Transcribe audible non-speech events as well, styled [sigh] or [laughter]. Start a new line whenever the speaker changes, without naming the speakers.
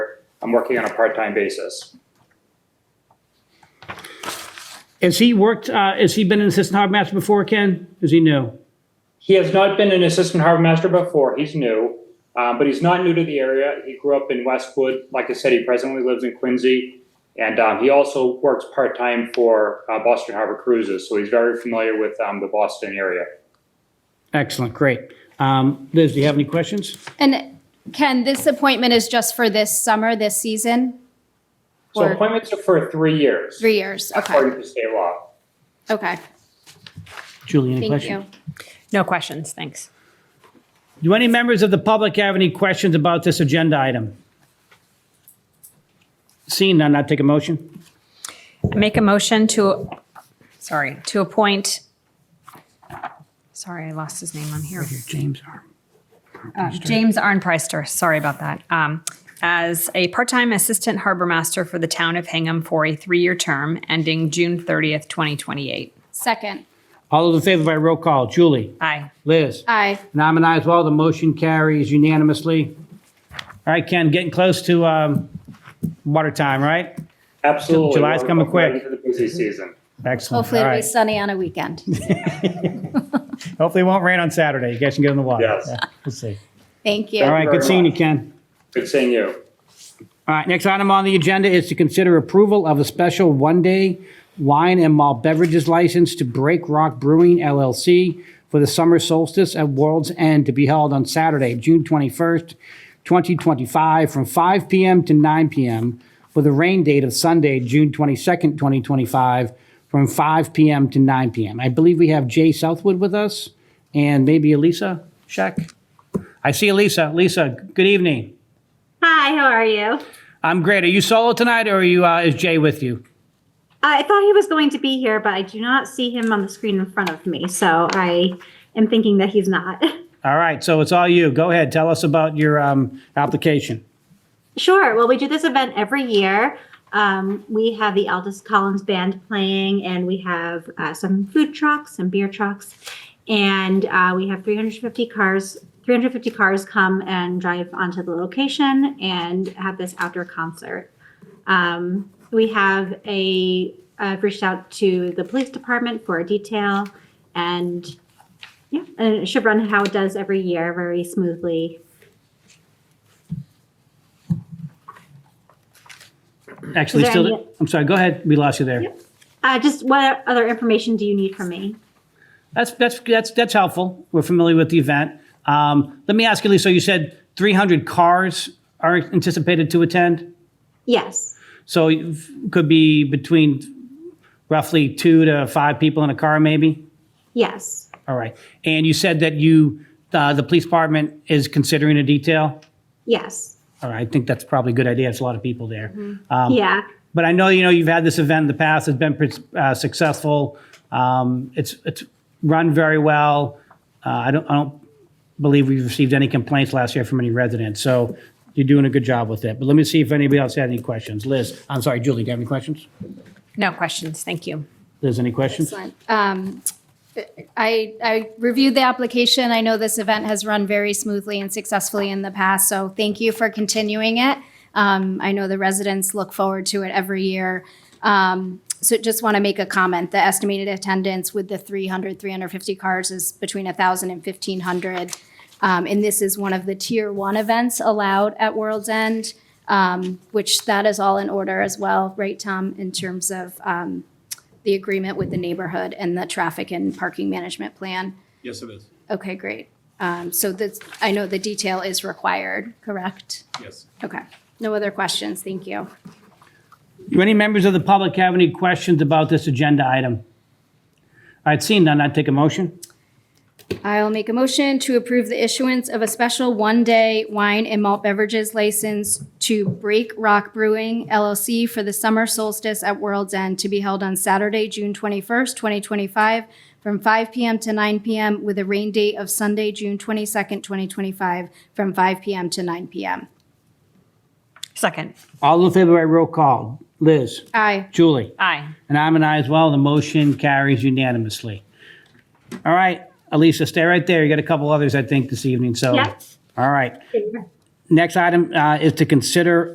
I'm working on a part-time basis.
Has he worked, uh, has he been an assistant harbor master before, Ken? Is he new?
He has not been an assistant harbor master before. He's new, um, but he's not new to the area. He grew up in Westwood. Like I said, he presently lives in Quincy. And um, he also works part time for uh, Boston Harbor Cruises. So he's very familiar with um, the Boston area.
Excellent, great. Um, Liz, do you have any questions?
And Ken, this appointment is just for this summer, this season?
So
Or-
appointments are for three years,
Three years, okay,
according to state law.
okay,
Julie, any
thank
questions?
you.
No questions, thanks.
Do any members of the public have any questions about this agenda item? Seeing none, I'll take a motion.
Make a motion to, sorry, to appoint, sorry, I lost his name on here. Uh,
James R.
James Arnpriester, sorry about that, um, as a part-time assistant harbor master for the town of Hingham for a three-year term ending June 30th, 2028.
Second,
All those in favor by roll call, Julie,
Aye.
Liz,
aye,
and I'm an aye as well, the motion carries unanimously. All right, Ken, getting close to um, water time, right?
Absolutely.
July's
We're
coming
right
quick.
Into the busy season.
Excellent.
hopefully
All
it'll be
right.
sunny on a weekend.
Hopefully it won't rain on Saturday, you guys can get in the water.
Yes.
Yeah, We'll see.
Thank
All
you.
right, good seeing you, Ken.
Good seeing you.
All right, next item on the agenda is to consider approval of a special one-day wine and malt beverages license to Break Rock Brewing LLC for the summer solstice at World's End to be held on Saturday, June 21st, 2025, from 5 p.m. to 9 p.m. with a rain date of Sunday, June 22nd, 2025, from 5 p.m. to 9 p.m. I believe we have Jay Southwood with us and maybe Elisa Scheck. I see Elisa. Lisa, good evening.
Hi, how are you?
I'm great. Are you solo tonight, or are you uh, is Jay with you?
I thought he was going to be here, but I do not see him on the screen in front of me, so I am thinking that he's not. [laughs]
All right, so it's all you. Go ahead, tell us about your um, application.
Sure. Well, we do this event every year. Um, we have the Aldous Collins Band playing, and we have uh, some food trucks, some beer trucks, and uh, we have 350 cars. 350 cars come and drive onto the location and have this outdoor concert. Um, we have a I've reached out to the police department for a detail, and yeah, and it should run how it does every year, very smoothly.
Actually,
Is there
still,
any-
I'm sorry. Go ahead. We lost you there.
Uh, just what other information do you need from me?
That's that's that's that's helpful. We're familiar with the event. Um, let me ask you, Lisa. You said 300 cars are anticipated to attend,
Yes.
so it could be between roughly two to five people in a car, maybe.
Yes.
All right. And you said that you uh, the police department is considering a detail.
Yes.
All right, I think that's probably a good idea. It's a lot of people there.
yeah.
But I know, you know, you've had this event in the past, it's been pretty, uh, successful. Um, It's, it's run very well. Uh, I don't, I don't believe we've received any complaints last year from any residents, so you're doing a good job with it. But let me see if anybody else had any questions. Liz, I'm sorry, Julie, do you have any questions?
No questions, thank you.
Liz, any questions?
Excellent. Um, I, I reviewed the application. I know this event has run very smoothly and successfully in the past, so thank you for continuing it. Um, I know the residents look forward to it every year. Um, so just want to make a comment. The estimated attendance with the 300, 350 cars is between 1,000 and 1,500. Um, and this is one of the tier one events allowed at World's End, um, which that is all in order as well, right, Tom, in terms of, um, the agreement with the neighborhood and the traffic and parking management plan?
Yes, it is.
Okay, great. Um, So that's, I know the detail is required, correct?
Yes.
Okay, no other questions, thank you.
Do any members of the public have any questions about this agenda item? All right, seeing none, I'd take a motion.
I'll make a motion to approve the issuance of a special one-day wine and malt beverages license to Break Rock Brewing LLC for the summer solstice at World's End to be held on Saturday, June 21st, 2025, from 5 p.m. to 9 p.m. with a rain date of Sunday, June 22nd, 2025, from 5 p.m. to 9 p.m.
Second,
All in favor by roll call. Liz,
Aye.
Julie?
aye.
And I'm an aye as well. The motion carries unanimously. All right, Elisa, stay right there. You got a couple others, I think, this evening, so.
Yeah.
All right. Next item uh, is to consider